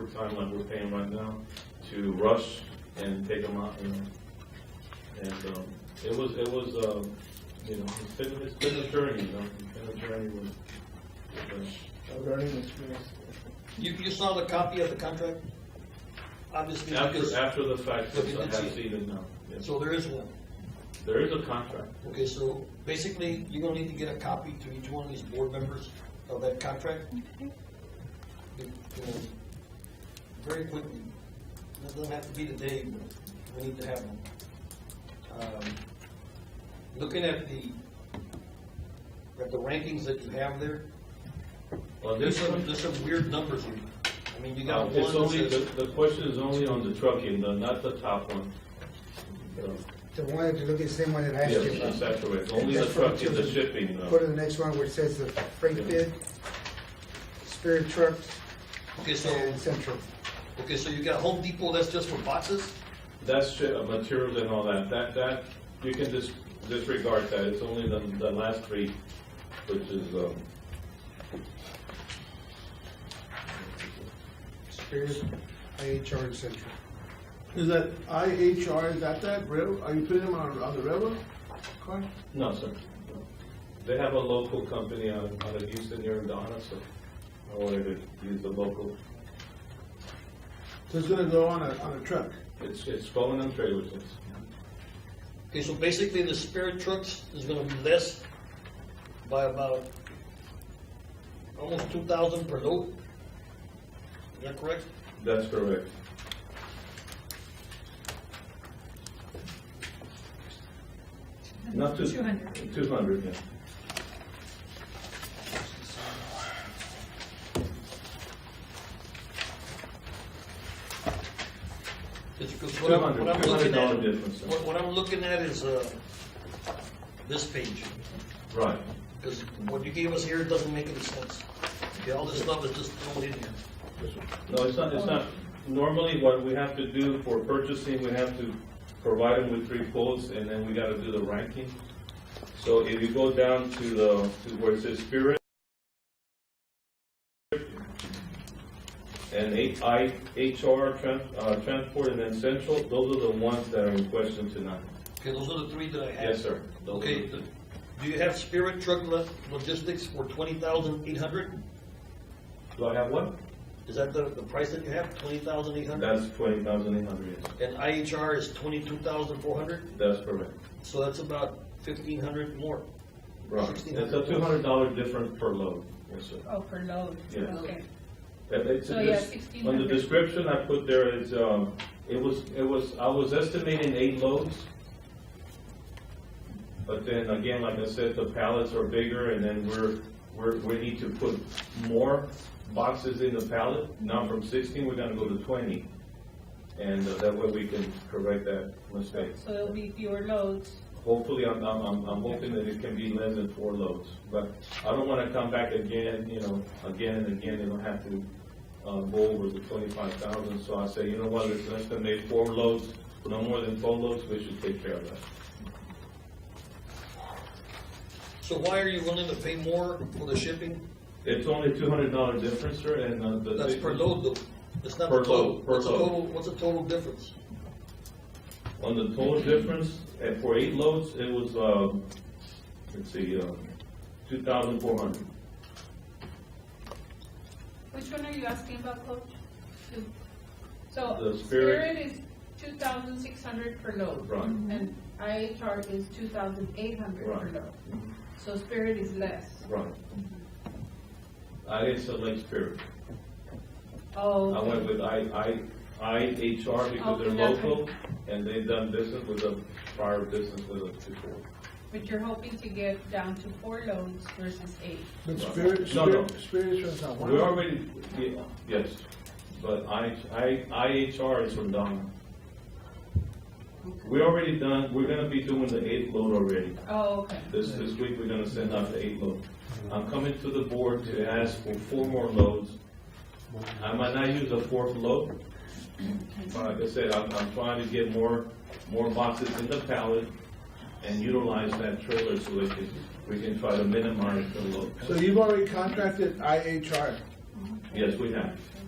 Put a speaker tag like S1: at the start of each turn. S1: overtime like we're paying right now to rush and take them out, you know. And, um, it was, it was, um, you know, it's been, it's been a journey, you know, it's been a journey with, with, uh,
S2: a learning experience.
S3: You, you saw the copy of the contract? Obviously,
S1: After,
S3: because,
S1: after the fact,
S3: Look at
S1: yes,
S3: the
S1: I have
S3: chief.
S1: seen it now. Yes.
S3: so there is one.
S1: There is a contract.
S3: Okay, so basically, you're gonna need to get a copy to each one of these board members of that contract. You know, Very quickly, it doesn't have to be today, but we need to have them. Um, Looking at the, at the rankings that you have there,
S1: Well,
S3: there's
S1: this
S3: some,
S1: one,
S3: there's some weird numbers in there. I mean, you
S1: uh,
S3: got one
S1: it's only,
S3: that
S1: the,
S3: says,
S1: the question is only on the trucking, the- not the top one. So,
S2: The one, if you look at the same one that I asked
S1: Yes,
S2: you
S1: that's
S2: about.
S1: accurate. Only the
S2: That's for
S1: trucking, the
S2: the-
S1: shipping,
S2: Go
S1: uh,
S2: to the next one where it says the freight bid, Spirit Trucks,
S3: okay, so,
S2: and Central.
S3: okay, so you got Home Depot, that's just for boxes?
S1: that's shi- uh, materials and all that. That, that, you can dis- disregard that. It's only the, the last three, which is, um,
S2: Spirit, IHR, and Central.
S4: Is that IHR, is that that rail, are you putting them on, on the railroad car?
S1: no, sir. They have a local company out, out of Houston, here in Donna, so I wanted to use the local.
S4: So it's gonna go on a, on a truck?
S1: It's, it's going on trailers, yes.
S3: Okay, so basically the spirit trucks is gonna be less by about almost two thousand per load. Is that correct?
S1: That's correct. Not to.
S5: Two hundred.
S1: Two hundred, yeah.
S3: It's because what I'm, what I'm looking
S1: $200
S3: at,
S1: difference.
S3: what, what I'm looking at is, uh, this page.
S1: Right.
S3: Because what you gave us here doesn't make any sense. Okay, all this stuff is just thrown in here.
S1: No, it's not, it's not, normally what we have to do for purchasing, we have to provide them with three quotes, and then we gotta do the ranking. So if you go down to the, to where it says Spirit, and eight I, HR, tran- uh, Transport, and then Central, those are the ones that are in question tonight.
S3: Okay, those are the three that I have.
S1: Yes, sir. Those are
S3: Okay,
S1: the-
S3: do you have spirit truck lo- logistics for twenty thousand eight hundred?
S1: Do I have one?
S3: Is that the, the price that you have, twenty thousand eight hundred?
S1: That's twenty thousand eight hundred,
S3: And IHR is twenty-two thousand four hundred,
S1: that's correct.
S3: so that's about fifteen hundred more.
S1: Right, it's a two hundred dollar difference per load, yes, sir.
S5: Oh, per load,
S1: Yeah.
S5: okay.
S1: That- that's-
S5: So, yeah,
S1: it's- On the
S5: 1,600.
S1: description I put there is, um, it was, it was, I was estimating eight loads. But then again, like I said, the pallets are bigger and then we're, we're, we need to put more boxes in the pallet. Now from sixteen, we're gonna go to twenty. And uh, that way we can correct that mistake.
S5: So it'll be fewer loads.
S1: Hopefully, I'm, I'm, I'm I'm hoping that it can be less than four loads, but I don't wanna come back again, you know, again and again, and have to, uh, go over the twenty-five thousand, so I say, you know what, let's estimate four loads, no more than four loads, we should take care of that.
S3: So why are you willing to pay more for the shipping?
S1: It's only two hundred dollar difference, sir, and, uh, the.
S3: That's per load though, it's not
S1: Per
S3: the
S1: load,
S3: total.
S1: per
S3: What's the
S1: load.
S3: total, what's the total difference?
S1: On the total difference, and for eight loads, it was, um, let's see, um, two thousand four hundred.
S5: Which one are you asking about, Coach? Two. So
S1: The Spirit.
S5: Spirit is two thousand six hundred per load.
S1: Right.
S5: And IHR is two thousand eight hundred per
S1: Right. Mm-hmm.
S5: load. So Spirit is less.
S1: Right. I uh, didn't select Spirit.
S5: Oh.
S1: I went with I, I, IHR because they're
S5: Okay, that's
S1: local and they've done business with a prior business with us before.
S5: But you're hoping to get down to four loads versus eight.
S4: But Spirit,
S1: No, no.
S4: Spirit, Spirit is not one.
S1: We already, yeah, yes, but I, I, IHR is from Donna. We already done, we're gonna be doing the eighth load already.
S5: Oh, okay.
S1: This, this week, we're gonna send out the eight load. I'm coming to the board to ask for four more loads. I might not use a fourth load. But like I said, I'm, I'm trying to get more, more boxes in the pallet and utilize that trailer so we can, we can try to minimize the load.
S4: So you've already contracted IHR,
S1: Yes, we have.